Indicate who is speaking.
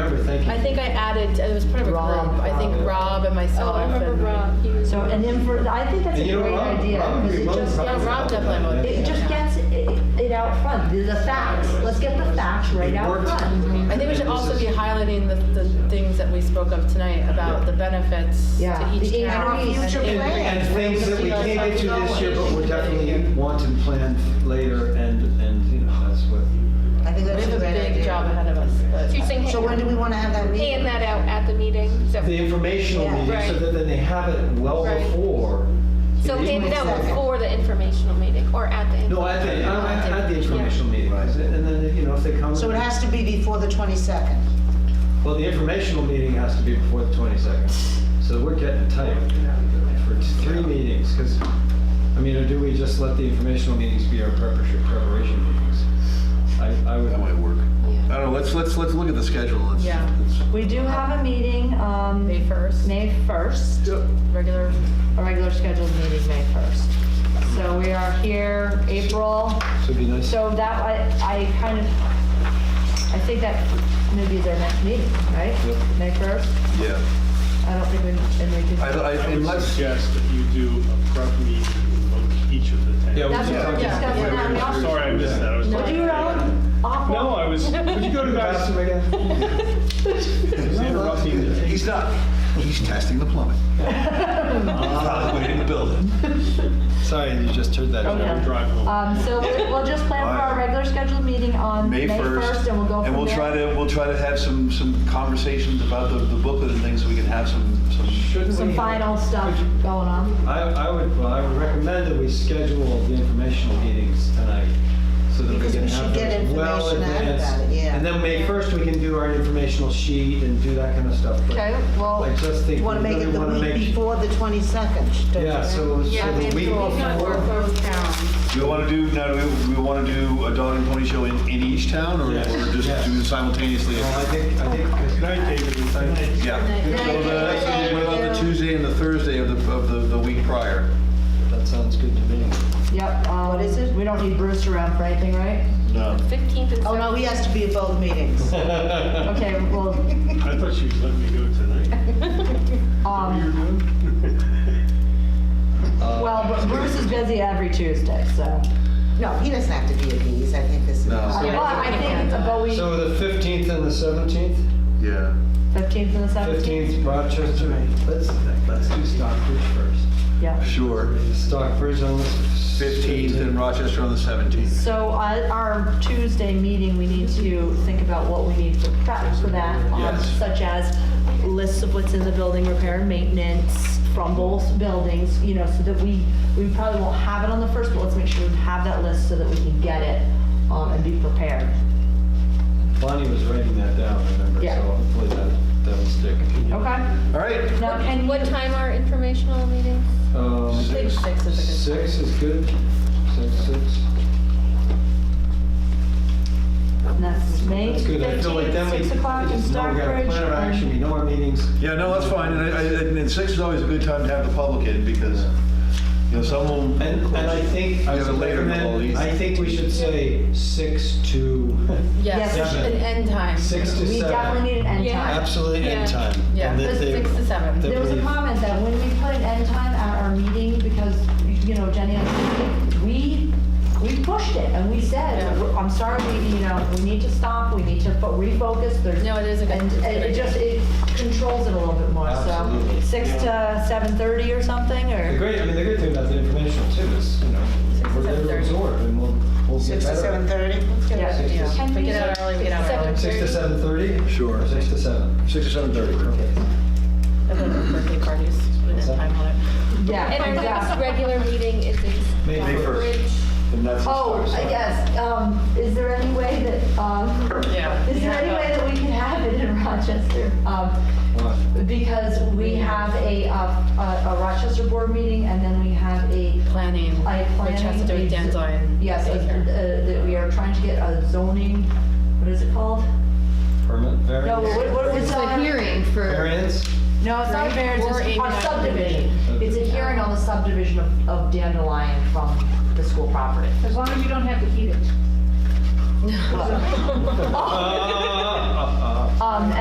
Speaker 1: thank you.
Speaker 2: I think I added, it was part of a
Speaker 3: Rob,
Speaker 2: group, I think
Speaker 1: Rob.
Speaker 2: Rob and
Speaker 4: Oh,
Speaker 2: myself.
Speaker 4: I remember
Speaker 2: and-
Speaker 4: Rob, he was.
Speaker 3: So, and then for, I think that's
Speaker 1: And
Speaker 3: a
Speaker 1: you know,
Speaker 3: great
Speaker 1: Rob-
Speaker 3: idea,
Speaker 1: Rob
Speaker 3: because
Speaker 1: agreed,
Speaker 3: it
Speaker 1: Rob
Speaker 3: just
Speaker 1: was
Speaker 3: gets,
Speaker 1: probably
Speaker 2: Rob
Speaker 1: helped
Speaker 2: definitely
Speaker 1: with that.
Speaker 2: motivated.
Speaker 3: it just gets it it out front, the the facts, let's get the facts right
Speaker 1: It
Speaker 3: out
Speaker 1: worked.
Speaker 3: front.
Speaker 2: I think we should also be highlighting the, the things that we spoke of tonight about the benefits
Speaker 3: Yeah.
Speaker 2: to each
Speaker 3: The
Speaker 2: town.
Speaker 3: increase.
Speaker 2: and-
Speaker 1: And- And things that we can't get to this year, but we're definitely want and plan later, and, and, you know, that's what.
Speaker 5: I think
Speaker 2: We
Speaker 5: that's
Speaker 2: have
Speaker 5: a
Speaker 2: a
Speaker 5: great
Speaker 2: big job
Speaker 5: idea.
Speaker 2: ahead of us, but.
Speaker 4: So you're saying,
Speaker 5: So when do we want to have that meeting?
Speaker 4: hand that out at the meeting? So-
Speaker 1: The informational
Speaker 5: Yeah.
Speaker 1: meeting, so
Speaker 4: Right.
Speaker 1: that then they have it well
Speaker 4: Right.
Speaker 1: before.
Speaker 4: So hand it out
Speaker 5: Exactly.
Speaker 4: before the informational meeting or at the.
Speaker 1: No, at the, uh, at at the informational meeting, is it? and then, you know, if they come.
Speaker 5: So it has to be before the 22nd.
Speaker 1: Well, the informational meeting has to be before the 22nd, so we're getting tight for t- three meetings, because, I mean, or do we just let the informational meetings be our preparation preparation meetings? I, I
Speaker 6: That
Speaker 1: would,
Speaker 6: might work.
Speaker 4: Yeah.
Speaker 6: I don't know, let's, let's, let's look at the schedule. Let's-
Speaker 2: Yeah.
Speaker 6: let's-
Speaker 3: We do have a meeting, um,
Speaker 2: May first,
Speaker 3: May first,
Speaker 2: regular,
Speaker 3: a regular scheduled meeting, May first. So we are here, April,
Speaker 1: so it'd be nice.
Speaker 3: so that, I, I kind of, I think that maybe is our next meeting, right?
Speaker 1: Yep.
Speaker 3: May first,
Speaker 6: Yeah.
Speaker 3: I don't think we, and we
Speaker 6: I,
Speaker 3: can,
Speaker 6: I,
Speaker 7: I would
Speaker 6: unless,
Speaker 7: suggest that you do a prep meeting with each of the
Speaker 1: Yeah, we
Speaker 7: ten.
Speaker 3: that's what
Speaker 1: just-
Speaker 3: we're discussing now, we also-
Speaker 7: Sorry, I missed that. I was
Speaker 3: Would
Speaker 7: talking
Speaker 3: you
Speaker 7: to
Speaker 3: run? Awful.
Speaker 7: No, I was, would you go to guys?
Speaker 1: Bathroom again?
Speaker 7: I was interrupting the-
Speaker 6: he's not, he's testing the plumbing. Probably in the building.
Speaker 1: Sorry, you just heard that.
Speaker 3: Okay.
Speaker 1: Jerry.
Speaker 7: drive home.
Speaker 3: Um, so we- we'll just plan for our regular scheduled meeting on May 1st, and we'll go from there.
Speaker 6: And we'll try to, we'll try to have some, some conversations about the the booklet and things, so we can have some, some,
Speaker 1: Shouldn't
Speaker 3: Some
Speaker 1: we-
Speaker 3: final stuff going on.
Speaker 1: I, I would, well, I would recommend that we schedule the informational meetings tonight, so that we
Speaker 5: Because
Speaker 1: can
Speaker 5: we should
Speaker 1: have
Speaker 5: get
Speaker 1: those well
Speaker 5: information out
Speaker 1: advanced.
Speaker 5: about it, yeah.
Speaker 1: And then May first, we can do our informational sheet and do that kind of stuff. but
Speaker 3: Okay, well,
Speaker 1: I just think we
Speaker 5: You want to make
Speaker 1: really
Speaker 5: it the
Speaker 1: want to
Speaker 5: week
Speaker 1: make.
Speaker 5: before the 22nd. don't
Speaker 1: Yeah,
Speaker 5: you?
Speaker 1: so, so the week before.
Speaker 2: both towns.
Speaker 6: do we want to do, now, do we, we want to do a dog and pony show in, in each town, or
Speaker 1: Yes.
Speaker 6: or just
Speaker 1: Yes.
Speaker 6: do it simultaneously?
Speaker 1: Well, I think, I think.
Speaker 7: Good night, David.
Speaker 6: Yeah. So the- What about the Tuesday and the Thursday of the, of the, the week prior?
Speaker 1: That sounds good to me.
Speaker 3: Yep. What is it? We don't need Bruce around for anything, right?
Speaker 6: No.
Speaker 4: Fifteenth and.
Speaker 5: Oh, no, he has to be at both meetings.
Speaker 3: Okay, well,
Speaker 7: I thought she was letting me go tonight. What were you
Speaker 3: um,
Speaker 7: doing?
Speaker 1: Uh,
Speaker 3: well, but Bruce is busy every Tuesday, so.
Speaker 5: No, he doesn't have to be at these, I think this is.
Speaker 6: No.
Speaker 3: But I think, but we,
Speaker 1: So the fifteenth and the seventeenth?
Speaker 6: Yeah.
Speaker 3: 15th and the 17th?
Speaker 1: Fifteenth, Rochester, let's, let's do Stockbridge first.
Speaker 3: Yeah.
Speaker 6: Sure.
Speaker 1: Stockbridge on the.
Speaker 6: 15th and Rochester on the 17th.
Speaker 3: So uh, our Tuesday meeting, we need to think about what we need for prep for that, um,
Speaker 6: Yes.
Speaker 3: such as lists of what's in the building, repair and maintenance from both buildings, you know, so that we, we probably won't have it on the first, but let's make sure we have that list so that we can get it um, and be prepared.
Speaker 1: Bonnie was writing that down, I remember,
Speaker 3: Yeah.
Speaker 1: so hopefully that, that will stick.
Speaker 3: Okay?
Speaker 6: All right.
Speaker 3: Now,
Speaker 4: And what time are informational meetings?
Speaker 1: Um,
Speaker 2: Six is a good.
Speaker 1: Six is good, six, six.
Speaker 3: and that's May
Speaker 1: That's good, I feel like then we.
Speaker 3: 15th, 6 o'clock
Speaker 1: we
Speaker 3: in
Speaker 1: just know We got a
Speaker 3: Stockbridge.
Speaker 1: plan of action, we
Speaker 3: and-
Speaker 1: know our meetings.
Speaker 6: Yeah, no, that's fine. And, I- I- and six is always a good time to have the public in because, you know, someone.
Speaker 1: And, and I think, I
Speaker 6: You have a
Speaker 1: would
Speaker 6: later
Speaker 1: recommend,
Speaker 6: goalies.
Speaker 1: I think we should say six to,
Speaker 2: Yes,
Speaker 3: Yes.
Speaker 2: an end time.
Speaker 1: six to
Speaker 3: We definitely
Speaker 1: seven.
Speaker 3: need an end
Speaker 4: Yeah.
Speaker 3: time.
Speaker 1: Absolutely
Speaker 4: Yeah.
Speaker 1: end time.
Speaker 2: Yeah,
Speaker 1: And that they-
Speaker 2: six to seven.
Speaker 1: that
Speaker 3: There was a
Speaker 1: we-
Speaker 3: comment that when we put an end time at our meeting, because, you know, Jenny, and I, we, we pushed it, and we said,
Speaker 2: Yeah.
Speaker 3: I'm sorry, we, you know, we need to stop, we need to fo- refocus, there's.
Speaker 2: No, it is a good-
Speaker 3: And
Speaker 2: it's a good
Speaker 3: and it
Speaker 2: idea.
Speaker 3: just, it controls it a little bit more, so,
Speaker 1: Absolutely.
Speaker 3: six to seven thirty or something,
Speaker 1: The
Speaker 3: or?
Speaker 1: great, I mean, the good thing about the informational too is, you know,
Speaker 2: Six to
Speaker 1: we're there to
Speaker 2: 7:30.
Speaker 1: absorb and we'll, we'll get
Speaker 5: 6 to
Speaker 1: better.
Speaker 5: 7:30?
Speaker 3: Yeah.
Speaker 1: Six to
Speaker 2: If we get out early, we get out early.
Speaker 1: Six to seven thirty?
Speaker 6: Sure.
Speaker 1: Six to seven.
Speaker 6: Six or 7:30.
Speaker 2: Everyone's birthday parties, put an end time on it.
Speaker 3: Yeah.
Speaker 4: And our next
Speaker 3: exactly.
Speaker 4: regular meeting is in.
Speaker 1: May- May first.
Speaker 4: Stockbridge.
Speaker 1: And that's.
Speaker 3: Oh, I guess, um, is there any way that, um,
Speaker 2: Yeah.
Speaker 3: is there any way that we can have it in Rochester? Um, Because we have a, uh, a a Rochester board meeting, and then we have a,
Speaker 2: Planning,
Speaker 3: I planning.
Speaker 2: which has to do with Danzoin.
Speaker 3: Yes, a-
Speaker 2: daycare.
Speaker 3: uh, that we are trying to get a zoning, what is it called?
Speaker 1: Permit,
Speaker 3: No,
Speaker 1: variance.
Speaker 3: what, what was
Speaker 8: It's a hearing for,
Speaker 1: Variance?
Speaker 3: No, it's not a variance,
Speaker 8: Or
Speaker 3: it's
Speaker 8: a
Speaker 3: a subdivision.
Speaker 1: subdivision.
Speaker 3: It's a hearing on the subdivision of, of Dandelion from the school property.
Speaker 4: As long as you don't have to heat it.
Speaker 3: Um,
Speaker 1: Uh, Ah, ah, ah.
Speaker 3: and